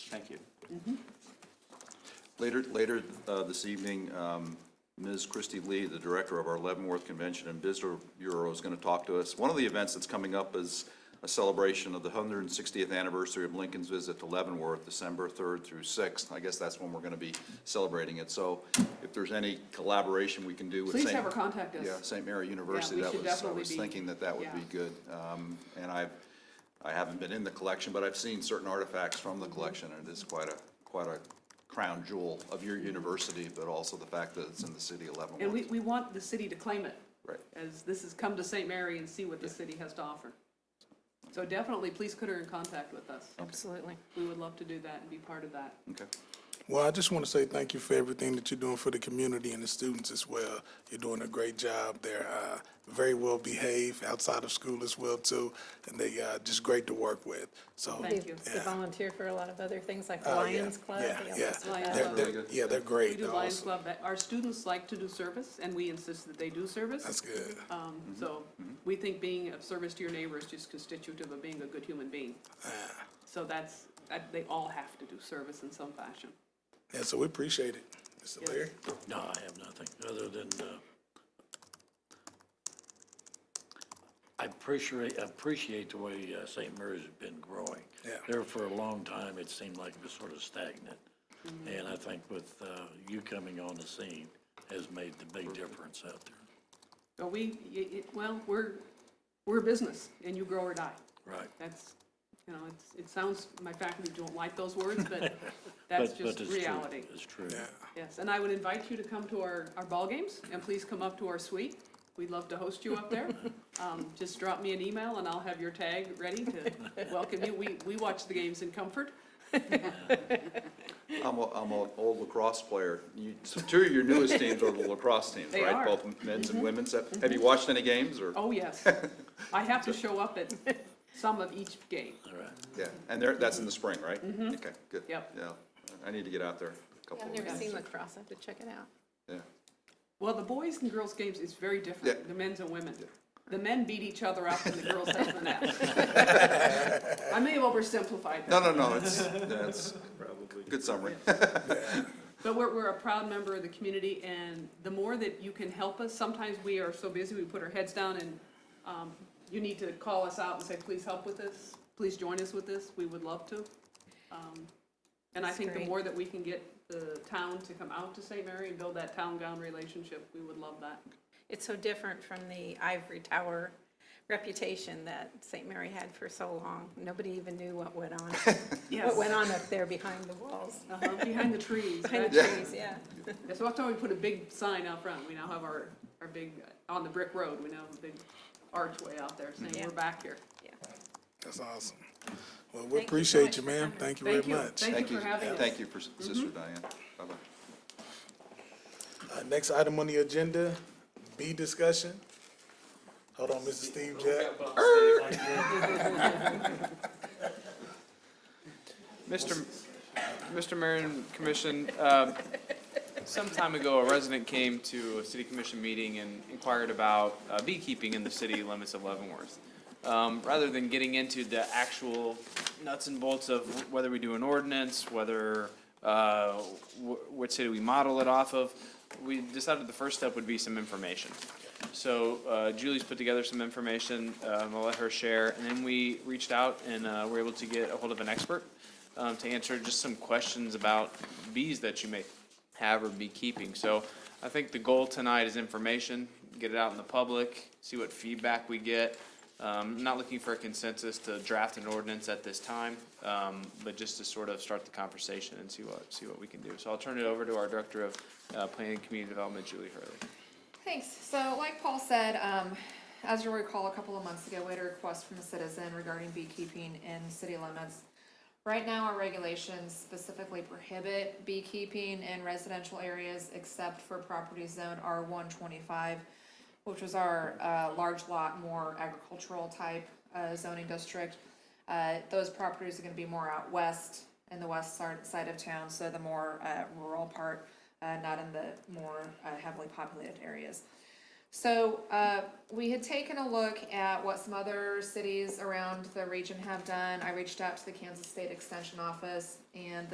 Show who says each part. Speaker 1: Thank you.
Speaker 2: Later, later uh, this evening, um, Ms. Christy Lee, the director of our Leavenworth Convention and Visitor Bureau, is going to talk to us. One of the events that's coming up is a celebration of the 160th anniversary of Lincoln's visit to Leavenworth, December 3rd through 6th. I guess that's when we're going to be celebrating it. So if there's any collaboration we can do with St.
Speaker 3: Please have her contact us.
Speaker 2: Yeah, St. Mary University,
Speaker 3: we
Speaker 2: that
Speaker 3: should
Speaker 2: was, I
Speaker 3: definitely
Speaker 2: was
Speaker 3: be-
Speaker 2: thinking that that would be
Speaker 3: yeah.
Speaker 2: good. Um, And I've, I haven't been in the collection, but I've seen certain artifacts from
Speaker 3: Mm-hmm.
Speaker 2: the collection, and it is quite a, quite a crown jewel of your university, but also the fact that it's in the city of
Speaker 3: And we,
Speaker 2: Leavenworth.
Speaker 3: we want the city to claim it.
Speaker 2: Right.
Speaker 3: As this has come to St. Mary and see what the city has to offer. So definitely, please put her in contact with us.
Speaker 4: Absolutely.
Speaker 3: We would love to do that and be part of that.
Speaker 2: Okay.
Speaker 5: Well, I just want to say thank you for everything that you're doing for the community and the students as well. You're doing a great job. They're uh, very well behaved outside of school as well too, and they uh, just great to work with. So
Speaker 3: Thank you.
Speaker 4: They volunteer for a lot of other things like
Speaker 5: Oh, yeah,
Speaker 4: Lions Club.
Speaker 5: yeah,
Speaker 4: they
Speaker 5: yeah.
Speaker 4: always do
Speaker 3: Lions Club.
Speaker 4: that.
Speaker 5: They're- they're-
Speaker 2: Really good.
Speaker 5: yeah, they're
Speaker 3: We
Speaker 5: great.
Speaker 3: do Lions
Speaker 5: also.
Speaker 3: Club, our students like to do service, and we insist that they do service.
Speaker 5: That's good. Mm-hmm.
Speaker 3: Um, so we think being of service to your neighbor is just constitutive of being a good human being.
Speaker 5: Ah.
Speaker 3: So that's, that, they all have to do service in some fashion.
Speaker 5: Yeah, so we appreciate it, Mr. Leary.
Speaker 6: No, I have nothing, other than, uh, I appreciate, appreciate the way uh, St. Mary's has been growing.
Speaker 5: Yeah.
Speaker 6: There for a long time, it seemed like it was sort of stagnant.
Speaker 3: Mm-hmm.
Speaker 6: And I think with uh, you coming on the scene has made the big difference out there.
Speaker 3: So we, y- y- well, we're, we're a business, and you grow or die.
Speaker 6: Right.
Speaker 3: That's, you know, it's, it sounds, my faculty don't like those words, but that's
Speaker 6: But-
Speaker 3: just
Speaker 6: but it's true.
Speaker 3: reality.
Speaker 6: It's true.
Speaker 3: Yes, and I would invite you to come to our, our ball games, and please come up to our suite. We'd love to host you up there. Um, just drop me an email and I'll have your tag ready to welcome you. We, we watch the games in comfort.
Speaker 2: I'm a, I'm an old lacrosse player. You, so two of your newest teams are the lacrosse teams,
Speaker 3: They
Speaker 2: right?
Speaker 3: are. Mm-hmm.
Speaker 2: Both men's and women's. Have have you watched any games, or?
Speaker 3: Oh, yes. I have to show up at some of each game.
Speaker 6: All right.
Speaker 2: Yeah, and they're, that's in the spring, right? Okay, good.
Speaker 3: Mm-hmm. Yep.
Speaker 2: Yeah, I need to get out there a couple
Speaker 4: I've
Speaker 2: of
Speaker 4: never
Speaker 2: weeks.
Speaker 4: seen lacrosse. I have to check it out.
Speaker 2: Yeah,
Speaker 3: Well, the boys and girls games is very
Speaker 2: Yeah.
Speaker 3: different, the men's and women. The men beat each other up and the girls have the net. I may have oversimplified that.
Speaker 2: No, no, no, it's, that's, good summary.
Speaker 3: But we're, we're a proud member of the community, and the more that you can help us, sometimes we are so busy, we put our heads down, and um, you need to call us out and say, please help with this, please join us with this, we would love to. Um, And I
Speaker 4: That's
Speaker 3: think the
Speaker 4: great.
Speaker 3: more that we can get the town to come out to St. Mary and build that town-gown relationship, we would love that.
Speaker 4: It's so different from the ivory tower reputation that St. Mary had for so long. Nobody even knew what went on, what went on up there behind the walls,
Speaker 3: Uh-huh, Behind the trees.
Speaker 4: behind
Speaker 3: right?
Speaker 4: the trees, yeah.
Speaker 3: Yeah, So that's why we put a big sign out front, we now have our, our big, on the brick road, we now have a big archway out there saying,
Speaker 4: Yeah.
Speaker 3: we're back here.
Speaker 4: Yeah.
Speaker 5: That's awesome. Well,
Speaker 4: so
Speaker 5: we appreciate
Speaker 4: much
Speaker 5: you,
Speaker 4: for
Speaker 5: ma'am.
Speaker 4: coming.
Speaker 5: Thank you very
Speaker 3: Thank you.
Speaker 5: much.
Speaker 3: Thank
Speaker 2: Thank
Speaker 3: you
Speaker 2: you,
Speaker 3: for having us. Mm-hmm.
Speaker 2: thank you for Sister Diane. Bye-bye.
Speaker 5: Uh, Next item on the agenda, B discussion. Hold on, Mr. Steve Jack.
Speaker 7: Mr. M- Mr. Mayor and Commission, uh, some time ago, a resident came to a city commission meeting and inquired about uh, beekeeping in the city limits of Leavenworth. Um, Rather than getting into the actual nuts and bolts of whether we do an ordinance, whether, uh, wh- what city we model it off of, we decided the first step would be some information. So uh, Julie's put together some information, um, I'll let her share, and then we reached out and uh, were able to get a hold of an expert um, to answer just some questions about bees that you may have or beekeeping. So I think the goal tonight is information, get it out in the public, see what feedback we get. Um, Not looking for a consensus to draft an ordinance at this time, um, but just to sort of start the conversation and see what, see what we can do. So I'll turn it over to our Director of uh, Planning and Community Development, Julie Hurley.
Speaker 8: Thanks. So like Paul said, um, as you'll recall, a couple of months ago, we had a request from a citizen regarding beekeeping in city limits. Right now, our regulations specifically prohibit beekeeping in residential areas except for properties zoned R one twenty-five, which was our, uh, large lot, more agricultural type, uh, zoning district. Uh, those properties are gonna be more out west, in the west side, side of town, so the more, uh, rural part, uh, not in the more uh, heavily populated areas. So, uh, we had taken a look at what some other cities around the region have done. I reached out to the Kansas State Extension Office and